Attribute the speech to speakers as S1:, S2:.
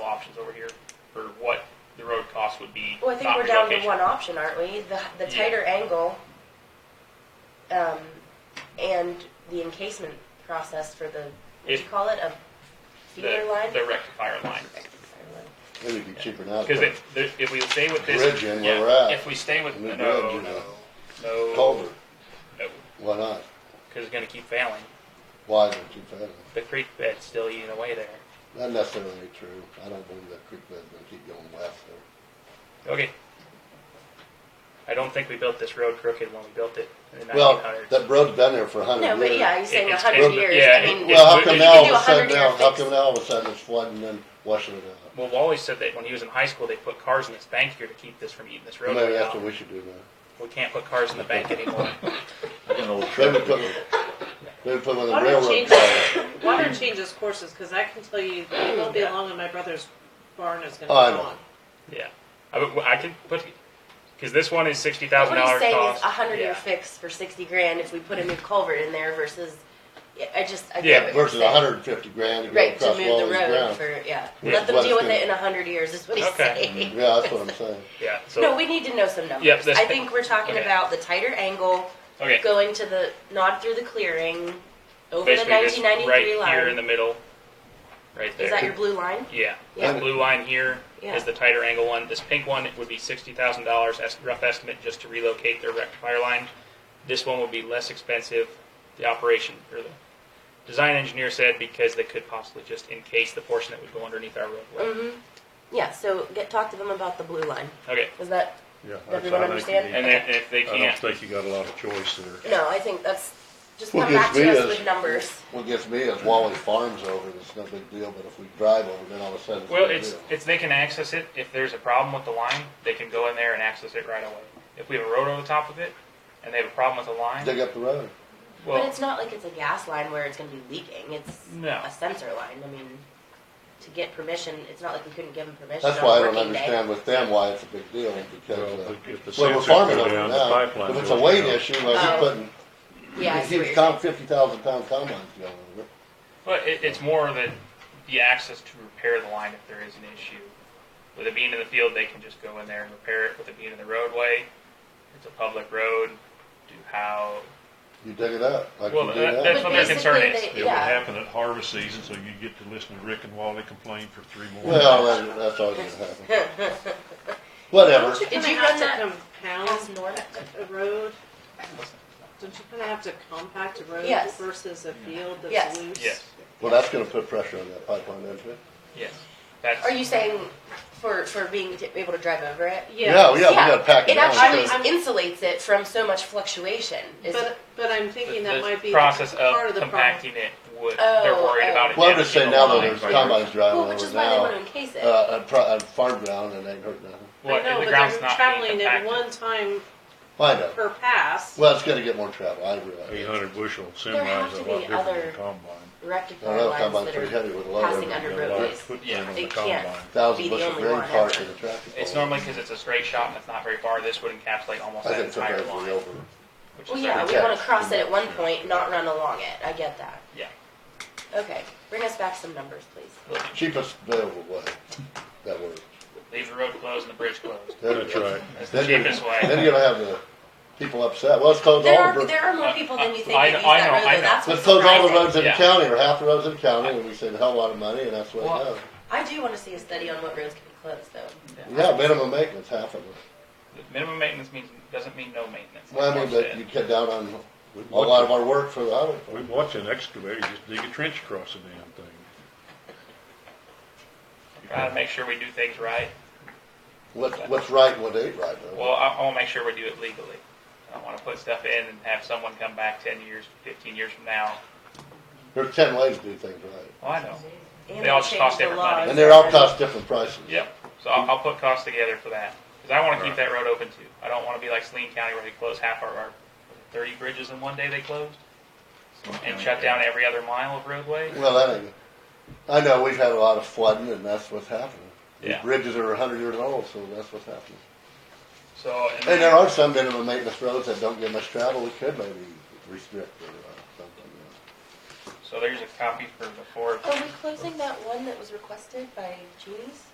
S1: for what the road cost would be.
S2: Well, I think
S1: not
S2: we're down to
S1: relocation.
S2: one option, aren't we? The, the
S1: Yeah.
S2: tighter angle, um, and the encasement process for the, what do you
S1: It-
S2: call it, a feeder line?
S1: The, the rectifier line.
S3: It would be cheaper now.
S1: Because if, if we stay with this.
S3: Bridge in where
S1: yeah,
S3: we're at.
S1: If we stay with, no,
S3: New
S1: no,
S3: bridge, you know.
S1: no.
S3: Culvert,
S1: No,
S3: why not?
S1: because it's gonna keep failing.
S3: Why is it too fast?
S1: The creek bed's still eating away there.
S3: Not necessarily true. I don't believe that creek bed's gonna keep going west there.
S1: Okay. I don't think we built this road crooked when we built it in the
S3: Well,
S1: nineteen hundreds.
S3: that road's been there for a hundred
S2: No,
S3: years.
S2: but yeah, you're saying a
S1: it's-
S2: hundred
S3: it-
S2: years,
S1: yeah,
S2: I mean.
S3: Well, how
S1: It-
S3: come
S1: it-
S3: now
S2: you
S3: all
S2: do
S3: of a sudden
S2: 100 year
S3: now, how
S2: fix.
S3: come now all of a sudden it's flooding and washing it out?
S1: Well, Wally said that when he was in high school, they put cars in this bank here to keep this from eating this road.
S3: Maybe
S1: out.
S3: that's what we should do now.
S1: We can't put cars in the bank anymore.
S4: I got an old
S3: Maybe
S4: truck.
S3: put, maybe put one of the
S5: Why don't
S3: railroad
S5: change-
S3: cars.
S5: Water changes courses, cause I can tell you, it won't be long and my brother's barn is
S3: Oh, I
S5: gonna be
S3: know.
S5: gone.
S1: yeah, I, would- I could put because this one is sixty
S2: What
S1: thousand
S2: he's
S1: dollars
S2: saying
S1: cost.
S2: is a hundred year
S1: yeah.
S2: fix for sixty grand if we put a new culvert in there versus, yeah, I just, I
S1: Yeah,
S2: get what you're
S3: Versus
S2: saying.
S3: hundred and fifty grand to go
S2: Right, to
S3: across
S2: move
S3: all
S2: the
S3: these
S2: road
S3: ground.
S2: for, yeah,
S3: Yeah.
S2: let them
S3: Let
S2: deal
S3: us
S2: with it
S3: do it.
S2: in a hundred years, is what he's
S1: Okay.
S2: saying.
S3: Yeah, that's what I'm saying.
S1: Yeah. So
S2: No, we need to know some numbers.
S1: Yep, this
S2: I
S1: thing-
S2: think we're talking
S1: okay.
S2: about the tighter angle,
S1: okay,
S2: going to the, not through the clearing, over the
S1: basically this
S2: nineteen ninety-three
S1: right here in
S2: line.
S1: the middle, right there.
S2: Is that your blue line?
S1: yeah,
S2: Yeah.
S1: the blue line here is
S2: Yeah.
S1: the tighter angle one. This pink one would be sixty thousand dollars, rough estimate, just to relocate their rectifier line. This one would be less expensive. The operation or the design engineer said because they could possibly just encase the portion that would go underneath our roadway.
S2: hmm yeah, so get, talk to them about the blue line,
S1: Okay,
S2: was that,
S6: Yeah.
S2: does everyone understand?
S1: and then if they
S6: I don't
S1: can't,
S6: think you got a lot of choice there.
S2: No, I think that's, just
S3: Well,
S2: come back
S3: gives
S2: to
S3: me
S2: us
S3: is-
S2: with numbers.
S3: What gets me is Wally Farms over, it's no big deal, but if we drive over, then all of a sudden. a
S1: Well,
S3: big
S1: it's,
S3: deal.
S1: it's, they can access it, if there's a problem with the line, they can go in there and access it right away. If we have a road over the top of it, and they have a problem with the line,
S3: Dig up the road.
S2: But
S1: well,
S2: it's not like it's a gas line where it's gonna be leaking, it's
S1: No.
S2: a sensor line, I mean, to get permission, it's not like we couldn't give them permission
S3: That's
S2: on a
S3: why I don't
S2: working day.
S3: understand with them why it's a big deal, because,
S6: Well,
S3: uh,
S6: if the
S3: well, we're
S6: sensors
S3: farming
S6: go
S3: over
S6: down, the
S3: now,
S6: pipeline
S3: if
S6: goes
S3: it's a weight
S6: down.
S3: issue, like
S2: Oh.
S3: he's putting,
S2: Yeah, I see what
S3: he's
S2: you're
S3: counting
S2: saying.
S3: fifty thousand pound combines going over.
S1: but it, it's more that the access to repair the line if there is an issue. With it being in the field, they can just go in there and repair it, with it being in the roadway, it's a public road, do how,
S3: You dig it up, like
S1: Well,
S3: you do
S1: that-
S3: now.
S1: that's
S2: But
S1: what their concern
S2: basically
S1: is.
S2: they-
S6: It would
S2: Yeah,
S6: happen at harvest season, so you'd get to listen to Rick and Wally complain for three more.
S3: Well, that- that's always gonna happen. Whatever.
S5: Don't you
S2: Did
S5: kinda
S2: you run
S5: have
S2: that
S5: to compound
S2: That's north.
S5: a road? Don't you kinda have to compact a road
S2: Yes.
S5: versus a field
S2: Yes.
S5: that's loose?
S1: yes,
S3: Well, that's gonna put pressure on that pipeline, isn't it?
S1: yes, that's.
S2: Are you saying for, for being t- able to drive over it?
S3: Yeah, yeah, we
S2: Yeah,
S3: gotta pack it
S2: It
S3: down.
S2: actually
S3: too.
S2: insulates it from so much fluctuation. is-
S5: But, but I'm thinking that
S1: the
S5: might be part
S1: process
S5: of the
S1: of
S5: problem.
S1: compacting it would they're
S2: Oh,
S1: worried
S2: oh.
S1: about it.
S3: Well, I'm just saying
S1: damaging
S3: now
S1: the
S3: that
S1: line.
S3: there's combines
S2: Well,
S3: driving
S2: which
S3: over
S2: is why they
S3: now,
S2: want to encase
S3: Oh, uh,
S2: it.
S3: on, pro- on farm ground, and ain't hurt nothing.
S1: Well,
S5: I know,
S1: the
S5: but
S1: ground's
S5: they're
S1: not being
S5: traveling at
S1: compacted.
S5: one time
S3: I know.
S5: per pass.
S3: Well, it's gonna get more travel, I
S6: Eight
S3: realize.
S6: hundred bushel
S2: There have
S6: semis is
S2: to
S6: a
S2: be
S6: lot different than
S2: other
S6: a combine.
S3: I
S2: Rectifier
S3: know combine's
S2: lines that
S3: pretty
S2: are,
S3: heavy with a load
S2: passing
S3: of
S2: under
S3: them.
S6: Got a lot
S2: roadways.
S6: of footprint
S1: Yeah.
S6: on
S2: They
S6: the
S2: can't.
S6: combine.
S2: be
S3: Thousand
S2: the
S3: bushel of
S2: only
S3: grain
S2: one
S3: parked
S2: ever.
S3: in a tractor.
S1: It's
S3: pull.
S1: normally because it's a straight shot and it's not very far. This would encapsulate almost
S3: I
S1: that
S3: think took
S1: entire
S3: everything
S1: line.
S3: over.
S1: Which
S2: Well,
S1: is
S2: yeah, we
S3: Yeah.
S2: want to cross it at one point, not run along it. I get that.
S1: Yeah.
S2: Okay, bring us back some numbers, please.
S3: Cheapest available way. That works.
S1: Leave the road closed and the bridge closed.
S3: Then-
S6: That's right.
S1: That's the
S3: Then you're,
S1: cheapest way.
S3: then you're gonna have the people upset. Well, let's close
S2: There
S3: all the,
S2: are
S3: roads.
S2: there are more people than you think
S1: I
S2: that use
S1: know- I
S2: that
S1: know-
S2: road.
S1: I know.
S2: though. That's
S3: let's
S2: what's
S3: close all the
S2: surprising.
S3: roads in the
S1: Yeah.
S3: county or half the roads in the county and we save a hell of a lot of money and that's what
S1: Well,
S3: it does.
S2: I do want to see a study on what roads can be closed, though.
S3: Yeah, minimum maintenance, half of it.
S1: The minimum maintenance means doesn't mean no maintenance.
S3: Well, I mean,
S1: That's it.
S3: but you cut down on
S6: We'd
S3: a lot of
S6: watch,
S3: our work for the auto.
S6: we'd watch an excavator just dig a trench across the damn thing.
S1: Try to make sure we do things right.
S3: What's, what's right and what ain't right. though.
S1: Well, I, I want to make sure we do it legally. I don't want to put stuff in and have someone come back 10 years, 15 years from now.
S3: There's ten ways to do things right.
S1: Oh, I know.
S2: And
S1: They all
S2: they
S1: just cost
S2: changed the
S1: different money.
S2: laws.
S3: And they're all cost different prices.
S1: Yep. So I'll, I'll put costs together for that. Because I want to keep that road open too. I don't want to be like Saline County where they close half our, our 30 bridges in one day they closed and shut down every other mile of roadway.
S3: Well, that ain't, I know, we've had a lot of flooding and that's what's happening. These
S1: Yeah.
S3: bridges are a hundred years old, so that's what's happening.
S1: So, and
S3: And there are some minimum maintenance roads that don't get much travel, we could maybe restrict or uh, something. you
S1: so there's a copy for before.
S2: Are we closing that one that was requested by Jeannie's?